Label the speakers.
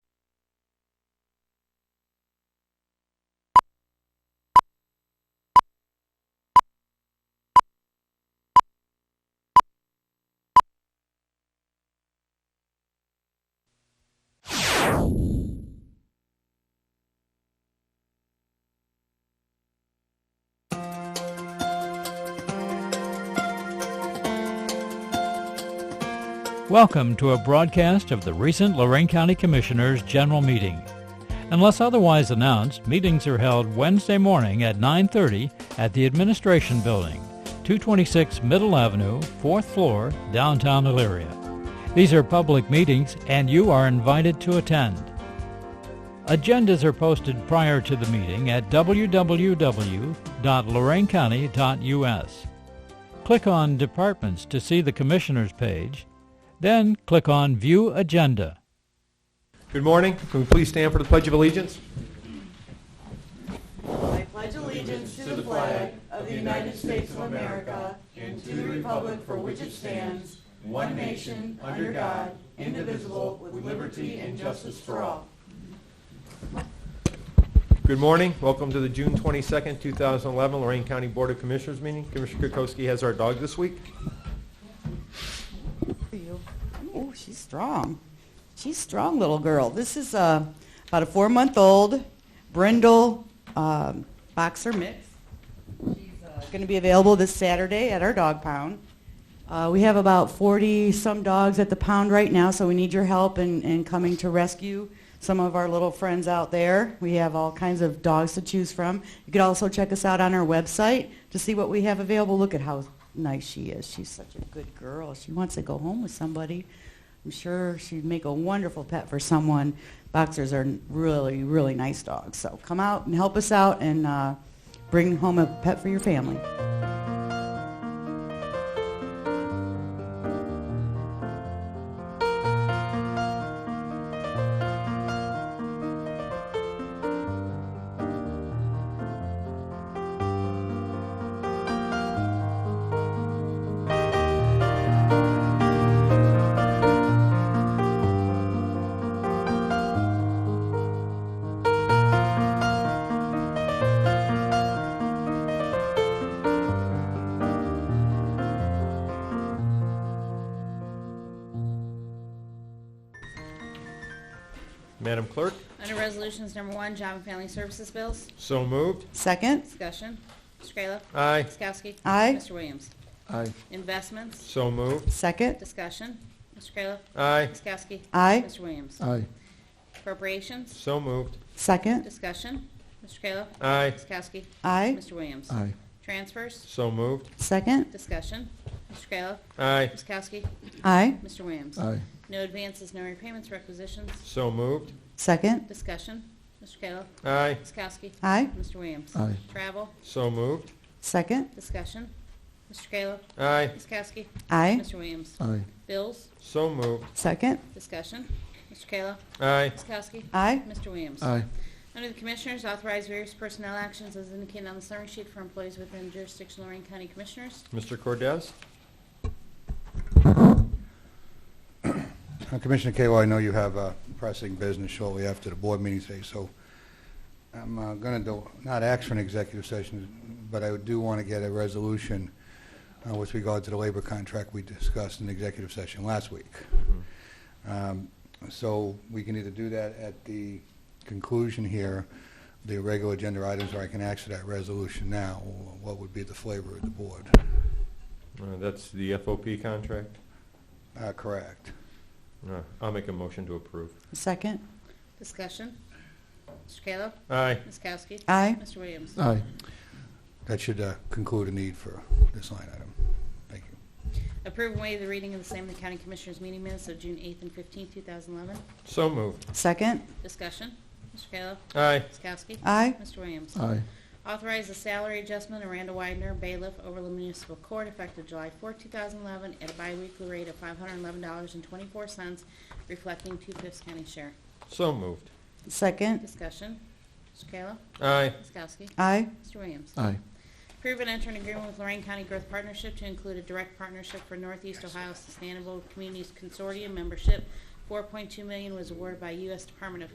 Speaker 1: Welcome to a broadcast of the recent Lorraine County Commissioners' General Meeting. Unless otherwise announced, meetings are held Wednesday morning at 9:30 at the Administration Building, 226 Middle Avenue, 4th floor, downtown Elyria. These are public meetings and you are invited to attend. Agendas are posted prior to the meeting at www.loraincounty.us. Click on Departments to see the Commissioners page, then click on View Agenda.
Speaker 2: Good morning. Can we please stand for the Pledge of Allegiance? Good morning. Welcome to the June 22nd, 2011 Lorraine County Board of Commissioners meeting. Commissioner Kukowski has our dog this week.
Speaker 3: you. Oh, she's strong. She's strong little girl. This is uh, about a four-month-old brindle um, boxer mix. She's uh, going to be available this Saturday at our dog pound. Uh, we have about 40 some dogs at the pound right now, so we need your help in, in coming to rescue some of our little friends out there. We have all kinds of dogs to choose from. You could also check us out on our website to see what we have available. Look at how nice she is. She's such a good girl. She wants to go home with somebody. I'm sure she'd make a wonderful pet for someone. Boxers are really, really nice dogs. So come out and help us out and uh, bring home a pet for your family.
Speaker 2: Madam Clerk?
Speaker 4: Under Resolutions Number One, Job and Family Services Bills,
Speaker 2: So moved.
Speaker 3: Second,
Speaker 4: discussion. Mr. Kayla.
Speaker 2: Aye.
Speaker 4: Ms. Kowski.
Speaker 3: Aye.
Speaker 4: Mr. Williams.
Speaker 2: Aye.
Speaker 4: Investments,
Speaker 2: So moved.
Speaker 3: second,
Speaker 4: discussion. Mr. Kayla.
Speaker 2: Aye.
Speaker 4: Ms. Kowski.
Speaker 3: Aye.
Speaker 4: Mr. Williams.
Speaker 2: Aye.
Speaker 4: Appropriations,
Speaker 2: So moved.
Speaker 3: second,
Speaker 4: discussion. Mr. Kayla.
Speaker 2: Aye.
Speaker 4: Ms. Kowski.
Speaker 3: aye,
Speaker 4: Mr. Williams.
Speaker 2: Aye.
Speaker 4: Transfers,
Speaker 2: So moved.
Speaker 3: second,
Speaker 4: discussion. Mr. Kayla.
Speaker 2: Aye.
Speaker 4: Ms. Kowski.
Speaker 3: aye,
Speaker 4: Mr. Williams.
Speaker 2: Aye.
Speaker 4: No advances, no repayments, requisitions,
Speaker 2: So moved.
Speaker 3: second,
Speaker 4: discussion. Mr. Kayla.
Speaker 2: Aye.
Speaker 4: Ms. Kowski.
Speaker 3: aye,
Speaker 4: Mr. Williams.
Speaker 2: Aye.
Speaker 4: Travel,
Speaker 2: So moved.
Speaker 3: second,
Speaker 4: discussion. Mr. Kayla.
Speaker 2: Aye.
Speaker 4: Ms. Kowski.
Speaker 3: aye,
Speaker 4: Mr. Williams.
Speaker 2: Aye.
Speaker 4: Bills,
Speaker 2: So moved.
Speaker 3: second,
Speaker 4: discussion. Mr. Kayla.
Speaker 2: Aye.
Speaker 4: Ms. Kowski.
Speaker 3: aye,
Speaker 4: Mr. Williams. Under the Commissioners, authorize various personnel actions as indicated on the summary sheet for employees within jurisdiction of Lorraine County Commissioners.
Speaker 2: Mr. Cordez?
Speaker 5: Uh, Commissioner Kayla, I know you have uh, pressing business shortly after the board meeting today, so I'm going to not ask for an executive session, but I do want to get a resolution uh, with regard to the labor contract we discussed in the executive session last week. Um, So we can either do that at the conclusion here, the regular agenda items, or I can ask for that resolution now. What would be the flavor of the board?
Speaker 2: Uh, That's the FOP contract.
Speaker 5: Uh, Correct.
Speaker 2: Uh, I'll make a motion to approve.
Speaker 3: second,
Speaker 4: Discussion. Mr. Kayla.
Speaker 2: Aye.
Speaker 4: Ms. Kowski.
Speaker 3: aye,
Speaker 4: Mr. Williams.
Speaker 2: Aye.
Speaker 5: That should uh, conclude a need for this line item. Thank you.
Speaker 4: Approve and waive the reading of the same in the County Commissioners meeting minutes of June 8th and 15th, 2011.
Speaker 2: So moved.
Speaker 3: second,
Speaker 4: Discussion. Mr. Kayla.
Speaker 2: Aye.
Speaker 4: Ms. Kowski.
Speaker 3: aye,
Speaker 4: Mr. Williams.
Speaker 2: Aye.
Speaker 4: Authorize a salary adjustment of Randall Widener, bailiff, Overland Municipal Court, effective July 4, 2011, at a biweekly rate of $511.24, reflecting two-fifths county share.
Speaker 2: So moved.
Speaker 3: second,
Speaker 4: Discussion. Mr. Kayla.
Speaker 2: Aye.
Speaker 4: Ms. Kowski.
Speaker 3: aye,
Speaker 4: Mr. Williams.
Speaker 2: Aye.
Speaker 4: Approve and enter an agreement with Lorraine County Growth Partnership to include a direct partnership for Northeast Ohio Sustainable Communities Consortium membership. 4.2 million was awarded by U.S. Department of